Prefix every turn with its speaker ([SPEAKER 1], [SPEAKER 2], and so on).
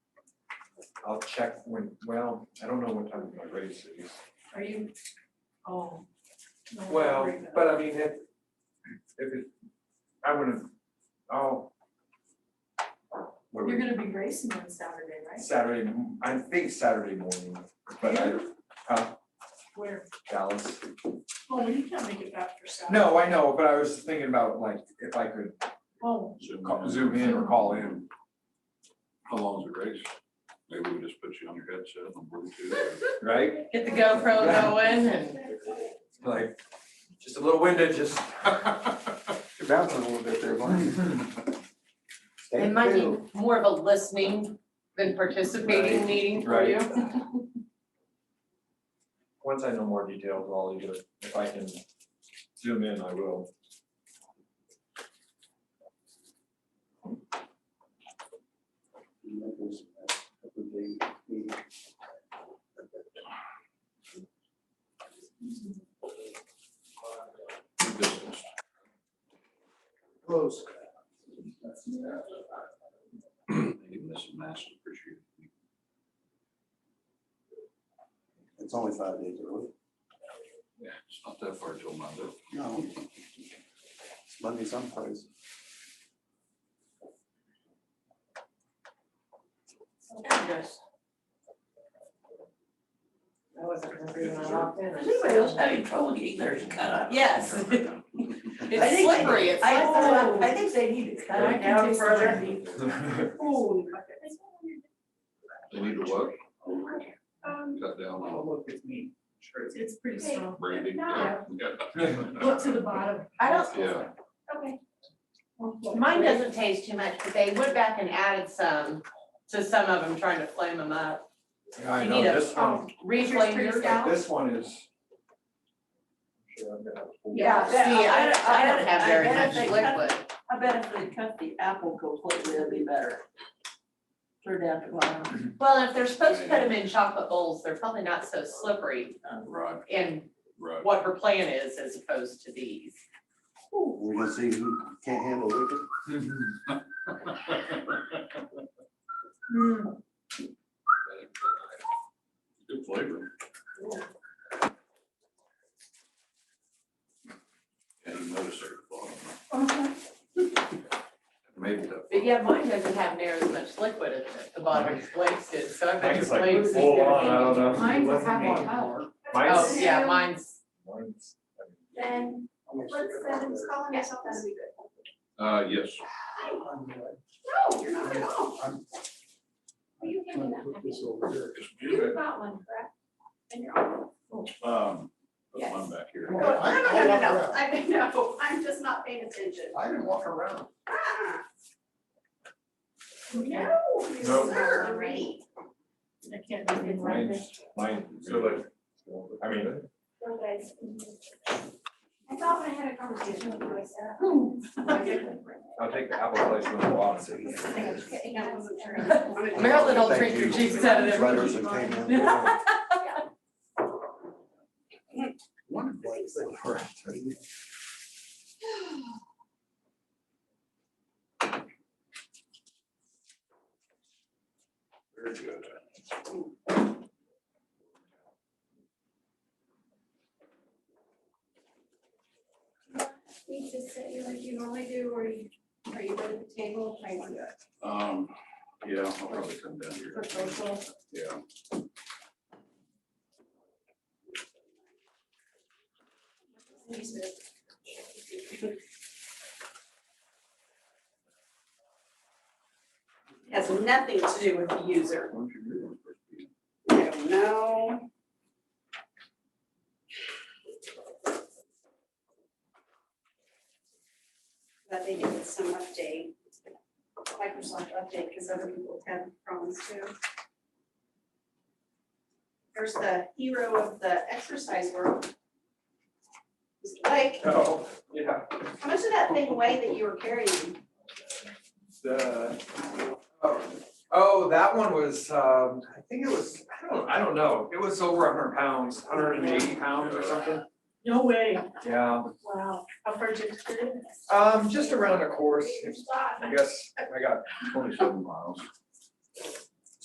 [SPEAKER 1] I'll check when, well, I don't know what time my race is.
[SPEAKER 2] Are you, oh. no, I'm
[SPEAKER 1] Well,
[SPEAKER 2] worried about-
[SPEAKER 1] but I mean, if, if it, I wouldn't, oh. what are we-
[SPEAKER 2] You're gonna be racing on Saturday, right?
[SPEAKER 1] Saturday, m- I think Saturday morning, but I, huh,
[SPEAKER 2] Where,
[SPEAKER 1] Dallas.
[SPEAKER 2] oh, you can't make it back for Saturday.
[SPEAKER 1] No, I know, but I was thinking about like, if I could
[SPEAKER 2] Oh,
[SPEAKER 1] ca- zoom in or call in.
[SPEAKER 3] How long's the race? Maybe we just put you on your headset on Bluetooth.
[SPEAKER 1] right?
[SPEAKER 4] Get the GoPro going and
[SPEAKER 1] Like, just a little window, just.
[SPEAKER 5] You're bouncing a little bit there, Barney. Stay
[SPEAKER 4] Hmm. it might
[SPEAKER 5] cool.
[SPEAKER 4] be more of a listening than participating meeting for you.
[SPEAKER 1] Once I know more details, I'll either, if I can zoom in, I will.
[SPEAKER 3] Distance.
[SPEAKER 5] Close.
[SPEAKER 3] Even this is massive, appreciate it.
[SPEAKER 5] It's only five days early.
[SPEAKER 3] Yeah, it's not that far till Monday.
[SPEAKER 5] No. It's Monday someplace.
[SPEAKER 4] There it goes. I wasn't hungry when I walked in. I
[SPEAKER 6] Is
[SPEAKER 4] just-
[SPEAKER 6] anybody else having trouble getting theirs cut up?
[SPEAKER 4] Yes.
[SPEAKER 6] I
[SPEAKER 4] It's
[SPEAKER 6] think-
[SPEAKER 4] slippery, it's
[SPEAKER 6] I,
[SPEAKER 4] like,
[SPEAKER 6] I think they need to cut
[SPEAKER 2] I
[SPEAKER 6] it
[SPEAKER 2] can
[SPEAKER 6] down
[SPEAKER 2] taste the
[SPEAKER 6] further.
[SPEAKER 2] jerky. holy bucket.
[SPEAKER 3] They need to what? Cut down on
[SPEAKER 6] look at me.
[SPEAKER 2] It's- Um, It's pretty strong.
[SPEAKER 3] Brandy.
[SPEAKER 2] No.
[SPEAKER 3] Yeah.
[SPEAKER 2] Look to the bottom.
[SPEAKER 6] I don't-
[SPEAKER 3] Yeah,
[SPEAKER 4] mine doesn't taste too much, but they went back and added some to some of them, trying to flame them up.
[SPEAKER 1] Yeah, I
[SPEAKER 4] You
[SPEAKER 1] know,
[SPEAKER 4] need a-
[SPEAKER 1] this one,
[SPEAKER 4] Reflame yours out.
[SPEAKER 1] this one is. Sure, I'm gonna-
[SPEAKER 6] Yeah,
[SPEAKER 4] See, I, I don't have very
[SPEAKER 6] I bet
[SPEAKER 4] much
[SPEAKER 6] if they cut-
[SPEAKER 4] liquid.
[SPEAKER 6] I bet if they cut the apple completely, it'd be better. Turn down the bottom.
[SPEAKER 4] Well, if they're supposed to put them in chocolate bowls, they're probably not so slippery um,
[SPEAKER 3] right,
[SPEAKER 4] in
[SPEAKER 3] right.
[SPEAKER 4] what her plan is as opposed to these.
[SPEAKER 5] We're gonna see who can't handle liquor.
[SPEAKER 1] Mm-hmm.
[SPEAKER 2] Mm.
[SPEAKER 3] Good flavor. And you notice there at the bottom. Maybe that.
[SPEAKER 4] But yeah, mine doesn't have near as much liquid at the- the bottom as Blake's did, so I
[SPEAKER 1] Mine
[SPEAKER 4] bet
[SPEAKER 1] is
[SPEAKER 4] Blake's
[SPEAKER 1] like
[SPEAKER 4] is
[SPEAKER 1] full
[SPEAKER 4] gonna
[SPEAKER 1] on,
[SPEAKER 4] be.
[SPEAKER 1] I don't know. It
[SPEAKER 2] Mine will
[SPEAKER 1] wasn't
[SPEAKER 2] have
[SPEAKER 1] me.
[SPEAKER 2] more power.
[SPEAKER 4] Oh,
[SPEAKER 1] Mine's,
[SPEAKER 4] yeah, mine's,
[SPEAKER 1] mine's, I mean,
[SPEAKER 7] Then, what's Kevin's calling yourself? That'd be good.
[SPEAKER 3] Uh, yes.
[SPEAKER 7] No, you're not at all. Will you give me that? package? You got one, correct? And you're on.
[SPEAKER 3] Um, put
[SPEAKER 7] Yes.
[SPEAKER 3] mine back here.
[SPEAKER 7] No, no, no, no, no, I know, I'm just not paying attention.
[SPEAKER 5] I didn't walk around.
[SPEAKER 7] Ah. No, you
[SPEAKER 1] No.
[SPEAKER 7] sir, great.
[SPEAKER 2] I can't do it right there.
[SPEAKER 1] mine's, mine. So like, I mean,
[SPEAKER 7] No, guys. I thought when I had a conversation with you, I said.
[SPEAKER 1] I'll take the apple slice with the water.
[SPEAKER 7] I wasn't sure.
[SPEAKER 4] Marilyn will
[SPEAKER 5] Thank
[SPEAKER 4] drink your
[SPEAKER 5] you.
[SPEAKER 4] juice out of
[SPEAKER 5] Right
[SPEAKER 4] every.
[SPEAKER 5] as it came in. Yeah.
[SPEAKER 3] Wonderful. Very good.
[SPEAKER 7] Need to sit here like you normally do, or you, are you at the table, trying to do it?
[SPEAKER 3] Um, yeah, I'll probably come down here.
[SPEAKER 7] For social?
[SPEAKER 3] Yeah.
[SPEAKER 6] Has nothing to do with the user.
[SPEAKER 3] Why don't you do one first, Pete?
[SPEAKER 6] No.
[SPEAKER 7] That they give it some update, Microsoft update, because other people have problems too. There's the hero of the exercise world. Mr. Blake,
[SPEAKER 1] Oh, yeah.
[SPEAKER 7] how much of that thing weigh that you were carrying?
[SPEAKER 1] the, oh, oh, that one was, um, I think it was, I don't, I don't know, it was over hundred pounds, hundred and eighty pounds or something.
[SPEAKER 2] No way.
[SPEAKER 1] Yeah,
[SPEAKER 2] Wow. How far did you put it? in?
[SPEAKER 1] um, just around a course, I guess, I got,
[SPEAKER 3] Twenty-seven miles.